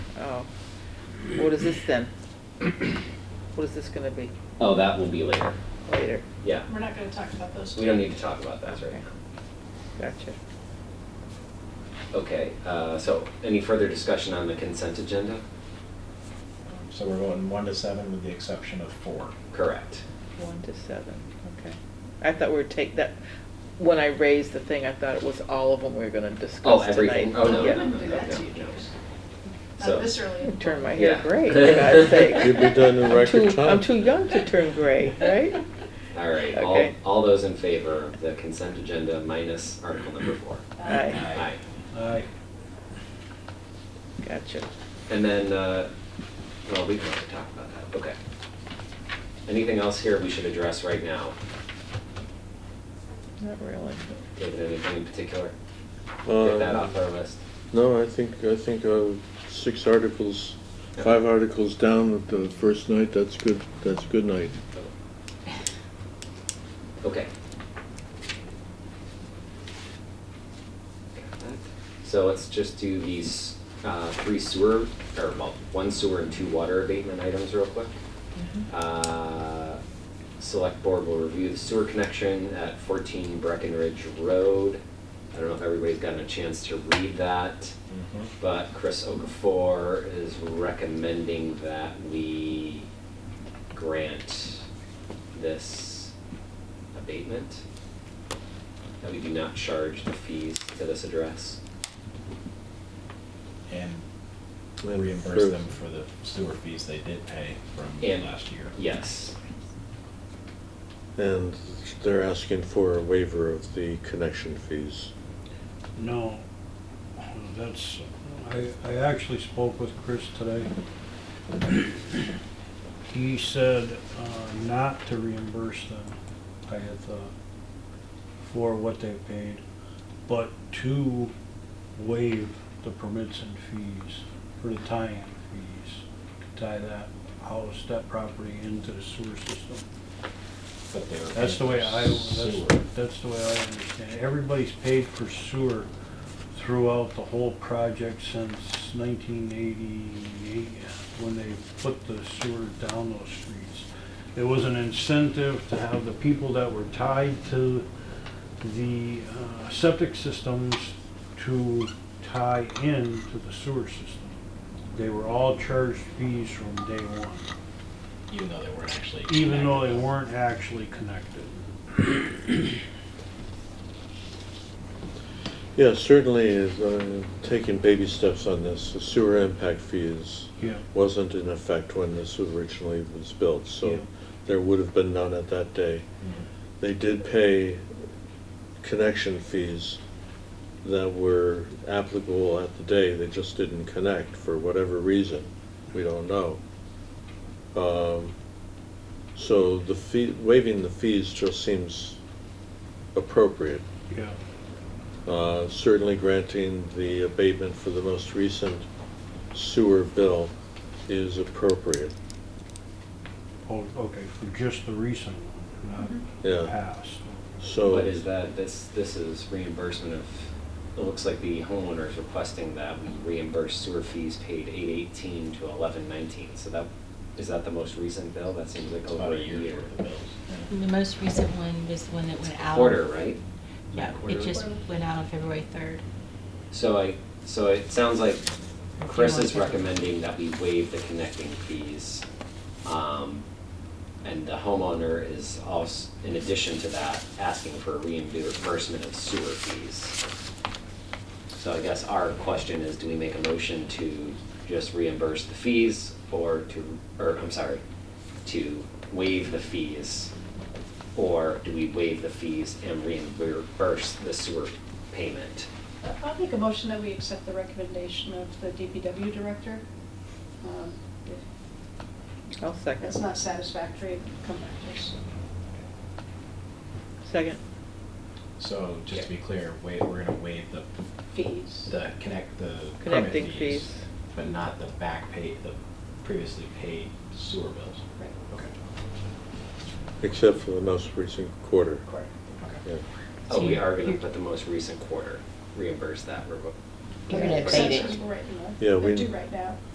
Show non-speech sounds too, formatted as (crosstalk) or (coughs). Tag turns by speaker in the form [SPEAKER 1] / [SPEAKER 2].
[SPEAKER 1] Oh, what is this then? (coughs) What is this gonna be
[SPEAKER 2] Oh, that will be later.
[SPEAKER 1] later?
[SPEAKER 2] Yeah,
[SPEAKER 3] We're not gonna talk about those.
[SPEAKER 2] we don't need to talk about that right
[SPEAKER 1] Okay.
[SPEAKER 2] now.
[SPEAKER 1] Gotcha.
[SPEAKER 2] Okay, uh, so any further discussion on the consent agenda?
[SPEAKER 4] Um, So we're going one to seven with the exception of four.
[SPEAKER 2] Correct.
[SPEAKER 1] One to seven, okay. I thought we were take that, when I raised the thing, I thought it was all of them we were gonna discuss tonight.
[SPEAKER 2] Oh, everything. Oh, no,
[SPEAKER 1] Yeah.
[SPEAKER 3] I wouldn't do that to you,
[SPEAKER 2] no.
[SPEAKER 3] Joyce.
[SPEAKER 2] So-
[SPEAKER 3] Not this early.
[SPEAKER 1] You
[SPEAKER 3] in
[SPEAKER 1] Turn my
[SPEAKER 3] life.
[SPEAKER 1] hair
[SPEAKER 2] Yeah.
[SPEAKER 1] gray,
[SPEAKER 2] (laughs)
[SPEAKER 1] for God's sake.
[SPEAKER 5] You'd be done in
[SPEAKER 1] I'm
[SPEAKER 5] record
[SPEAKER 1] too-
[SPEAKER 5] time.
[SPEAKER 1] I'm too young to turn gray, right?
[SPEAKER 2] (laughs) All right, all,
[SPEAKER 1] Okay.
[SPEAKER 2] all those in favor of the consent agenda minus article number four?
[SPEAKER 1] Aye,
[SPEAKER 2] Aye.
[SPEAKER 4] Aye.
[SPEAKER 1] gotcha.
[SPEAKER 2] And then, uh, well, we can have to talk about that, okay. Anything else here we should address right now?
[SPEAKER 1] Not really.
[SPEAKER 2] David, anything in particular?
[SPEAKER 5] Uh,
[SPEAKER 2] Get that off our list.
[SPEAKER 5] No, I think, I think uh, six articles, five articles down at the first night, that's good, that's good night.
[SPEAKER 2] Okay. So let's just do these uh, three sewer, or well, one sewer and two water abatement items real quick.
[SPEAKER 3] Mm-hmm.
[SPEAKER 2] Uh, Select board will review the sewer connection at 14 Breckenridge Road. I don't know if everybody's gotten a chance to read that,
[SPEAKER 4] Mm-hmm.
[SPEAKER 2] but Chris Okafor is recommending that we grant this abatement, that we do not charge the fees to this address.
[SPEAKER 4] And
[SPEAKER 5] And
[SPEAKER 4] reimburse
[SPEAKER 5] for-
[SPEAKER 4] them for the sewer fees they did pay from
[SPEAKER 2] And-
[SPEAKER 4] last year.
[SPEAKER 2] Yes,
[SPEAKER 5] And they're asking for a waiver of the connection fees.
[SPEAKER 6] No, Oh, that's, I, I actually spoke with Chris today. He said uh, not to reimburse them, I had thought, for what they paid, but to waive the permits and fees, for the tie-in fees, to tie that house, that property into the sewer system.
[SPEAKER 4] But they were
[SPEAKER 6] That's the way I,
[SPEAKER 4] paying for
[SPEAKER 6] that's,
[SPEAKER 4] sewer.
[SPEAKER 6] that's the way I understand it. Everybody's paid for sewer throughout the whole project since nineteen eighty-eight, when they put the sewer down those streets. It was an incentive to have the people that were tied to the uh, septic systems to tie in to the sewer system. They were all charged fees from day one,
[SPEAKER 4] Even though they weren't actually.
[SPEAKER 6] even though they
[SPEAKER 4] connected.
[SPEAKER 6] weren't actually connected.
[SPEAKER 5] Yeah, certainly, is, uh, taking baby steps on this, the sewer impact fees
[SPEAKER 6] Yeah.
[SPEAKER 5] wasn't in effect when this originally was built,
[SPEAKER 6] Yeah.
[SPEAKER 5] so there would have been none at that day.
[SPEAKER 4] Mhm.
[SPEAKER 5] They did pay connection fees that were applicable at the day, they just didn't connect for whatever reason, we don't know. Um, So the fee, waiving the fees just seems appropriate.
[SPEAKER 6] Yeah,
[SPEAKER 5] Uh, Certainly granting the abatement for the most recent sewer bill is appropriate,
[SPEAKER 6] oh, okay, for just the recent one, not the
[SPEAKER 5] yeah,
[SPEAKER 6] past.
[SPEAKER 5] so.
[SPEAKER 2] but is that, this, this is reimbursement of, it looks like the homeowner is requesting that we reimburse sewer fees paid eight eighteen to eleven nineteen, so that, is that the most recent bill? That seems like
[SPEAKER 4] It's about
[SPEAKER 2] over
[SPEAKER 4] a year's worth of bills. Yeah.
[SPEAKER 7] The most recent one was the one that
[SPEAKER 2] It's
[SPEAKER 7] went out.
[SPEAKER 2] Quarter, right?
[SPEAKER 7] Yeah, it
[SPEAKER 2] Quarterly?
[SPEAKER 7] just went out on February 3rd.
[SPEAKER 2] So I, so it sounds like
[SPEAKER 7] If you
[SPEAKER 2] Chris
[SPEAKER 7] want
[SPEAKER 2] is
[SPEAKER 7] to-
[SPEAKER 2] recommending that we waive the connecting fees. Um, and the homeowner is also, in addition to that, asking for reimbursement of sewer fees. So I guess our question is, do we make a motion to just reimburse the fees or to, or I'm sorry, to waive the fees? Or do we waive the fees and reimburse the sewer payment?
[SPEAKER 3] Uh, I'll make a motion that we accept the recommendation of the DPW director. Um, If
[SPEAKER 1] I'll
[SPEAKER 3] that's
[SPEAKER 1] second.
[SPEAKER 3] not satisfactory, come back to us.
[SPEAKER 1] Second,
[SPEAKER 4] So just to be clear, wa- we're gonna waive the,
[SPEAKER 3] Fees.
[SPEAKER 4] the connect, the permit
[SPEAKER 1] connecting fees.
[SPEAKER 4] But not the back pay, the previously paid sewer bills.
[SPEAKER 3] Right.
[SPEAKER 4] Okay.
[SPEAKER 5] Except for the most recent quarter.
[SPEAKER 4] Correct. Okay.
[SPEAKER 5] Yeah.
[SPEAKER 2] Oh, we are gonna put the most recent quarter, reimburse that, we're,
[SPEAKER 7] You're gonna
[SPEAKER 2] abate
[SPEAKER 7] abate it.
[SPEAKER 3] Exceptions were written, uh,
[SPEAKER 5] Yeah, we-
[SPEAKER 3] they're due right now.